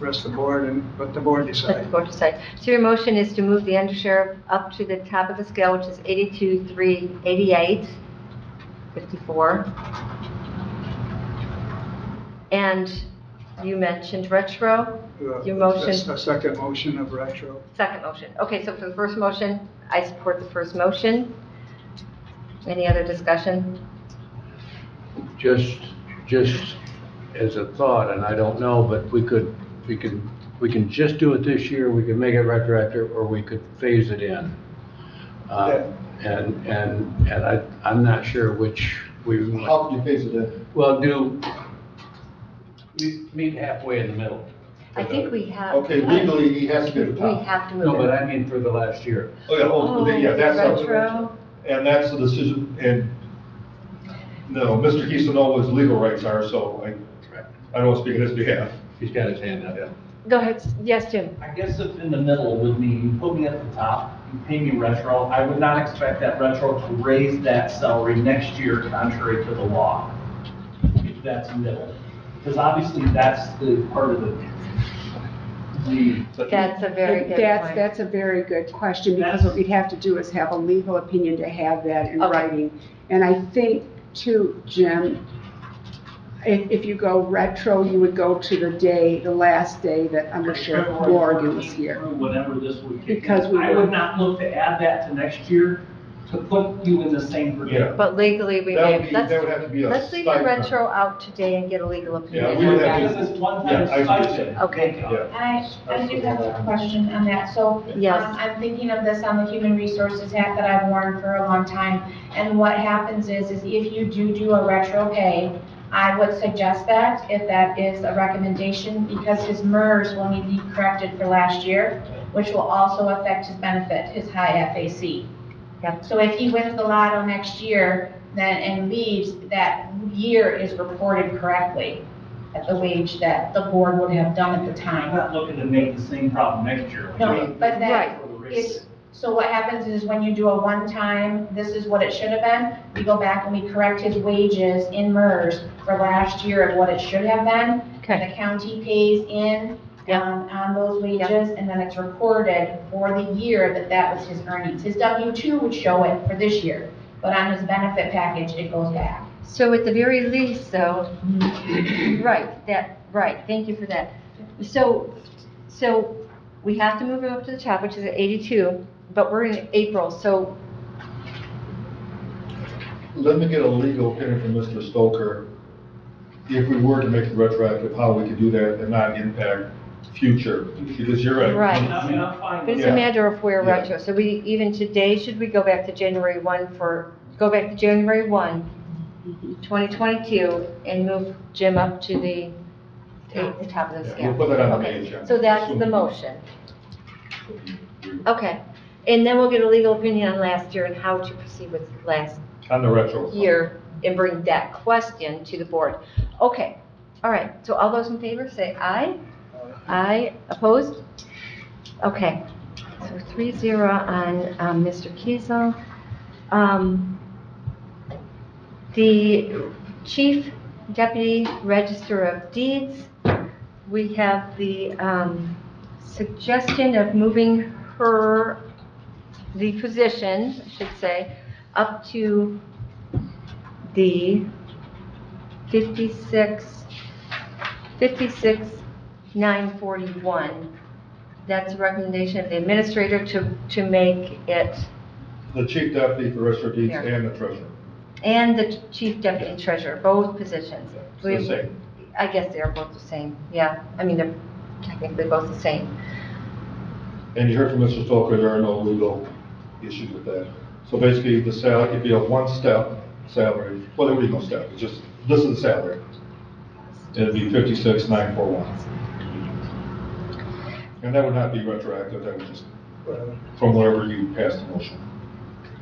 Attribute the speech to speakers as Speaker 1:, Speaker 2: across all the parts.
Speaker 1: rest of the board and let the board
Speaker 2: Let the
Speaker 1: decide.
Speaker 2: board decide. So your motion is to move the undersheriff up to the top of the scale, which is 82,388, 54. And you mentioned retro,
Speaker 1: Uh,
Speaker 2: Your motion.
Speaker 1: that's The second motion of retro.
Speaker 2: second motion. Okay, so for the first motion, I support the first motion. Any other discussion?
Speaker 3: Just, just as a thought, and I don't know, but we could, we can, we can just do it this year, we can make it retroactive, or we could phase it in. Uh, And, and, and I, I'm not sure which we, want.
Speaker 4: How can you phase it in?
Speaker 3: well, do, we meet halfway in the middle.
Speaker 2: I think we have.
Speaker 4: Okay, legally, he has to be at the
Speaker 2: We
Speaker 4: top.
Speaker 2: have to move
Speaker 3: No,
Speaker 2: it.
Speaker 3: but I mean for the last year.
Speaker 4: Oh, yeah, oh, yeah, that's, how-
Speaker 2: Retro,
Speaker 4: and that's the decision, and, no, Mr. Keeson knows what his legal rights are, so I, I don't speak on his behalf.
Speaker 3: He's got his hand up.
Speaker 2: go ahead, yes, Jim.
Speaker 5: I guess if in the middle would mean you put me at the top, you pay me retro, I would not expect that retro to raise that salary next year contrary to the law. If that's middle, because obviously that's the part of the, the.
Speaker 2: That's a very good point.
Speaker 6: That's, that's a very good question, because what we'd have to do is have a legal opinion to have that in
Speaker 2: Okay.
Speaker 6: writing. And I think too, Jim, if, if you go retro, you would go to the day, the last day that Under Sheriff
Speaker 5: February
Speaker 6: Morgan was
Speaker 5: 14th
Speaker 6: here.
Speaker 5: through Whenever this would kick in.
Speaker 6: Because we
Speaker 5: I
Speaker 6: were-
Speaker 5: would not look to add that to next year to put you in the same predicament.
Speaker 2: But legally, we
Speaker 4: That would
Speaker 2: may,
Speaker 4: be,
Speaker 2: let's,
Speaker 4: that would have to be a.
Speaker 2: let's leave the
Speaker 4: stipend.
Speaker 2: retro out today and get a legal
Speaker 4: Yeah,
Speaker 2: opinion
Speaker 4: we
Speaker 2: on
Speaker 4: would have
Speaker 2: that.
Speaker 4: to-
Speaker 5: Because it's one
Speaker 4: Yeah,
Speaker 5: time
Speaker 4: I agree.
Speaker 5: stipend.
Speaker 2: Okay.
Speaker 4: Yeah.
Speaker 7: I, I do have a question on that, so.
Speaker 2: Yes.
Speaker 7: um, I'm thinking of this on the human resources hat that I've worn for a long time. And what happens is, is if you do do a retro pay, I would suggest that, if that is a recommendation, because his MERS will need to be corrected for last year, which will also affect his benefit, his high FAC.
Speaker 2: Yep.
Speaker 7: So if he wins the lotto next year, then, and leaves, that year is reported correctly at the wage that the board would have done at the time.
Speaker 5: I'm not looking to make the same problem next year.
Speaker 7: No,
Speaker 2: Right.
Speaker 7: but then, it's, so what happens is when you do a one-time, this is what it should have been, we go back and we correct his wages in MERS for last year of what it should have been.
Speaker 2: Okay,
Speaker 7: The county pays in,
Speaker 2: Yep.
Speaker 7: um, on those
Speaker 2: Yep.
Speaker 7: wages, and then it's recorded for the year that that was his earnings. His W-2 would show it for this year, but on his benefit package, it goes back.
Speaker 2: so at the very least, though, right, that, right, thank you for that. So, so we have to move it up to the top, which is at 82, but we're in April, so
Speaker 4: Let me get a legal opinion from Mr. Stoker. If we were to make it retroactive, how we could do that and not impact future, because you're right.
Speaker 2: Right.
Speaker 5: I mean, I'm fine
Speaker 2: But
Speaker 5: with
Speaker 2: it's
Speaker 4: Yeah.
Speaker 2: a matter of where
Speaker 4: Yeah.
Speaker 2: retro, so we, even today, should we go back to January 1 for, go back to January 1, 2022, and move Jim up to the, to the top of the
Speaker 4: Yeah, We'll
Speaker 2: scale?
Speaker 4: put that on the
Speaker 2: Okay.
Speaker 4: agenda.
Speaker 2: So that's the motion, okay. And then we'll get a legal opinion on last year and how to proceed with last
Speaker 4: On the retro.
Speaker 2: year and bring that question to the board. Okay, all right, so all those in favor say aye? Aye, opposed? Okay, so three zero on um, Mr. Kiesel. Um, The Chief Deputy Register of Deeds, we have the um, suggestion of moving her, the position, I should say, up to the 56, 56,941. That's a recommendation of the administrator to, to make it,
Speaker 4: The chief deputy for register of deeds
Speaker 2: There.
Speaker 4: and the treasurer.
Speaker 2: and the chief deputy treasurer, both positions.
Speaker 4: It's the same.
Speaker 2: I guess they are both the same, yeah. I mean, they're technically both the same.
Speaker 4: And you heard from Mr. Stoker, there are no legal issues with that. So basically, the salary, it'd be a one-step salary, well, there would be no step, it's just, this is the salary. It'd be fifty-six, nine, four, one. And that would not be retroactive, that would just, from wherever you passed the motion.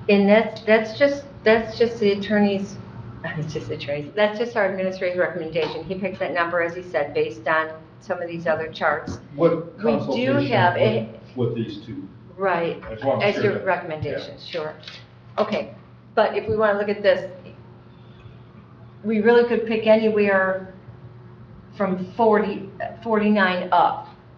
Speaker 2: And that's, that's just, that's just the attorney's, it's just the attorney's, that's just our administrator's recommendation. He picked that number, as he said, based on some of these other charts.
Speaker 4: What
Speaker 2: We do
Speaker 4: consultation
Speaker 2: have a-
Speaker 4: with- with these two?
Speaker 2: Right,
Speaker 4: I just wanna make
Speaker 2: as
Speaker 4: sure
Speaker 2: your
Speaker 4: that-
Speaker 2: recommendations, sure. Okay, but if we want to look at this, we really could pick anywhere from 40, 49 up.